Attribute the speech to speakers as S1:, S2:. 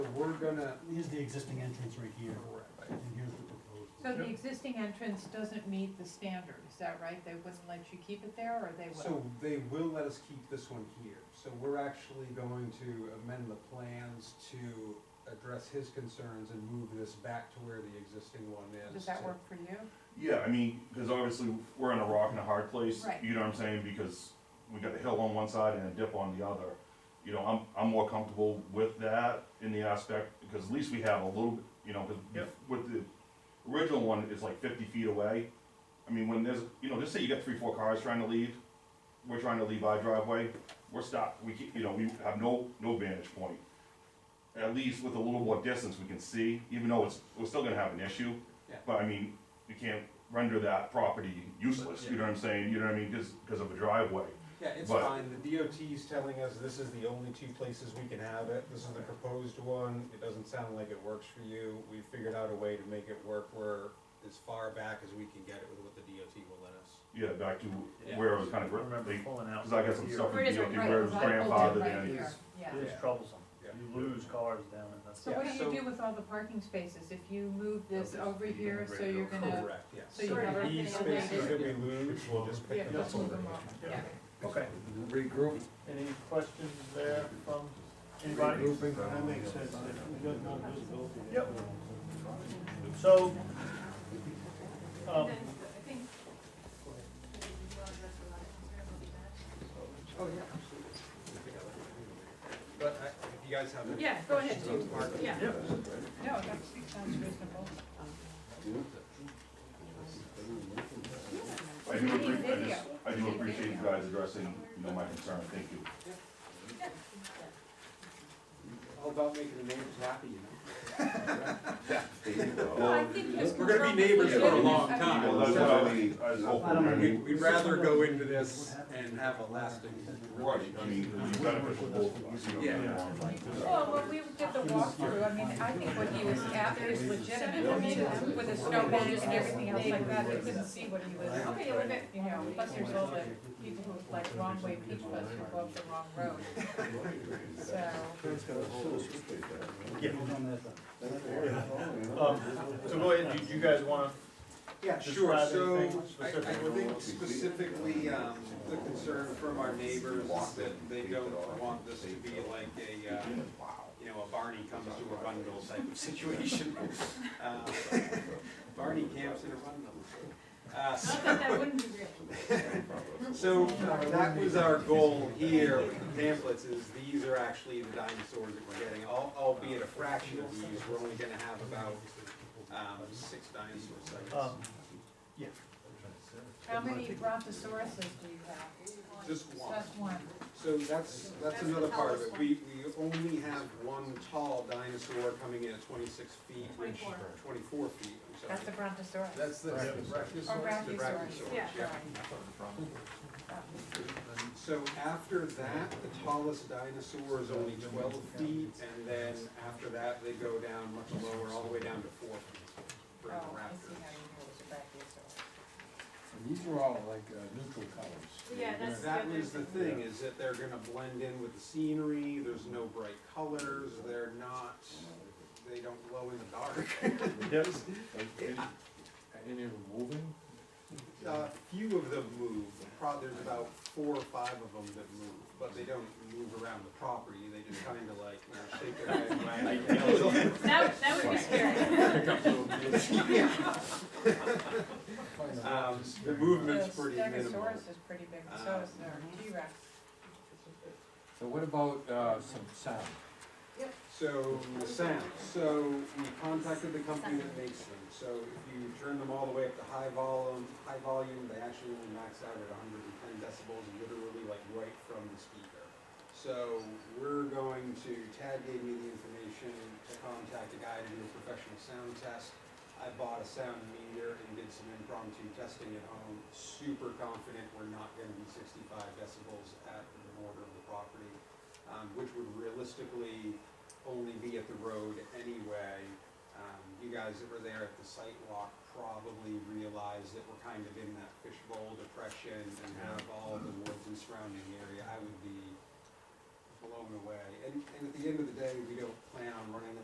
S1: we're gonna,
S2: Here's the existing entrance right here, and here's the
S3: So
S2: proposed.
S3: the existing entrance doesn't meet the standard, is that right? They wouldn't let you keep it there, or they will?
S1: so they will let us keep this one here. So we're actually going to amend the plans to address his concerns and move this back to where the existing one is.
S3: Does that
S1: to-
S3: work for you?
S4: Yeah, I mean, because obviously we're in a rock and a hard place.
S3: Right.
S4: You know what I'm saying? Because we got a hill on one side and a dip on the other. You know, I'm, I'm more comfortable with that in the aspect, because at least we have a little, bit. you know, because with the original one, it's like fifty feet away. I mean, when there's, you know, just say you got three, four cars trying to leave, we're trying to leave our driveway, we're stopped, we keep, you know, we have no, no vantage point. At least with a little more distance, we can see, even though it's, we're still gonna have an issue.
S1: Yeah.
S4: But I mean, you can't render that property useless, you know what I'm saying, you know what I mean, just because of a driveway.
S1: Yeah, it's
S4: But-
S1: fine, the DOT's telling us this is the only two places we can have it, this is the proposed one, it doesn't sound like it works for you, we figured out a way to make it work where as far back as we can get it with what the DOT will let us.
S4: Yeah, back to
S5: Yeah.
S4: where it was kind of,
S5: Remember
S4: because
S5: pulling out.
S4: I got some stuff from
S3: Where it is
S4: DOT
S3: right-
S4: where it was
S3: right, right,
S4: grandfathered
S3: right
S4: in.
S3: here, Yeah.
S5: It is troublesome.
S1: Yeah.
S5: You lose cars down and that's.
S3: So what
S1: Yeah,
S3: do
S1: so-
S3: you do with all the parking spaces? If you move this
S5: They'll just
S3: over
S5: leave them
S3: here,
S5: right
S3: so you're
S5: over.
S3: gonna,
S1: Correct, yes.
S3: so you're never gonna
S1: These
S3: get away
S1: spaces that
S3: with
S1: we lose, we'll just
S3: Yeah,
S1: pick them up.
S3: just move them off, yeah.
S5: Okay.
S6: regroup,
S5: Any questions there from anybody?
S6: regrouping.
S2: That makes sense, if we got more visibility.
S5: Yep. So,
S7: I
S5: um,
S7: think
S1: But I- if you guys have any.
S3: Yeah, go ahead,
S1: questions
S3: do,
S1: on parking,
S3: yeah.
S5: yeah,
S3: No, that sounds reasonable.
S4: I do
S3: Video.
S4: appreciate, I just, I do
S3: Video.
S4: appreciate you guys addressing, you know, my concern, thank you.
S1: All about making the neighbors happy, you know?
S3: No, I
S4: Well,
S3: think his
S1: We're gonna be
S3: concern was
S1: neighbors for a
S3: legitimate.
S1: long
S3: I mean,
S1: time.
S4: well, Uh, that's what I was, I was hoping, I mean,
S1: We'd, we'd rather go into this and have a lasting.
S4: right, I mean, it'd be beneficial to both of us, you know, in the long run.
S3: Well, when we did the walkthrough, I mean, I think what he was after is legitimate, I mean, with a snowbank and everything else like that, they couldn't see what he was, okay, look at, you know, plus there's all the people who like wrong way peach bus who go up the wrong road. So,
S5: yeah.
S2: Hold on, that's-
S5: Um, so go ahead, do you guys wanna,
S1: Yeah,
S5: Just
S1: sure,
S5: describe
S1: so
S5: anything
S1: I, I
S5: specifically.
S1: think specifically, um, the concern from our neighbors is that they don't want this to be like a, uh, you know, a Barney comes to a Rundle type of situation. Uh, Barney camps in a Rundle. Uh, so-
S7: Not that that wouldn't be real.
S1: So uh, that was our goal here with the pamphlets, is these are actually the dinosaurs that we're getting, al- albeit a fraction of these, we're only gonna have about, um, six dinosaur
S5: um,
S1: sites.
S3: how many brontosauruses do you have?
S1: Just one.
S3: Just one.
S1: So that's, that's
S7: That's the
S1: another part of it,
S7: tallest
S1: we, we only have one tall dinosaur coming in at twenty-six feet, which,
S7: 24.
S1: twenty-four feet, I'm
S3: That's a
S1: sorry.
S3: brontosaurus.
S1: That's the.
S3: Or
S1: Brachiosaurus? The
S3: brachiosaurus, yeah.
S1: So after that, the tallest dinosaur is only twelve feet, and then after that, they go down much lower, all the way down to four feet for
S3: Oh,
S1: the
S3: I see how
S1: raptors.
S3: you knew it was a brachiosaurus.
S6: These were all like uh, neutral colors.
S7: Yeah, that's-
S1: That was the thing, is that they're gonna blend in with the scenery, there's no bright colors, they're not, they don't glow in the dark.
S5: yep,
S6: Any any moving?
S1: A Uh, few of them move, probably there's about four or five of them that move, but they don't move around the property, they just kinda like, you know, shake their head. and wag
S7: That, that would be scary.
S1: their tail. Um, the movement's pretty
S3: The
S1: minimal. Uh,
S3: stegosaurus is pretty big, and so is the T-Rex.
S6: So what about uh, some sound?
S1: So, the sound, so we contacted the company that makes them, so if you turn them all the way up to high volume, high volume, they actually only max out at hundred and ten decibels, literally like right from the speaker. So, we're going to, Tad gave me the information to contact a guy to do a professional sound test. I bought a sound meter and did some impromptu testing at home, super confident we're not gonna be sixty-five decibels at the border of the property, um, which would realistically only be at the road anyway. Um, you guys that were there at the site walk probably realized that we're kind of in that fishbowl depression and have all the woods and surrounding area. I would be blown away. And, and at the end of the day, we don't plan on running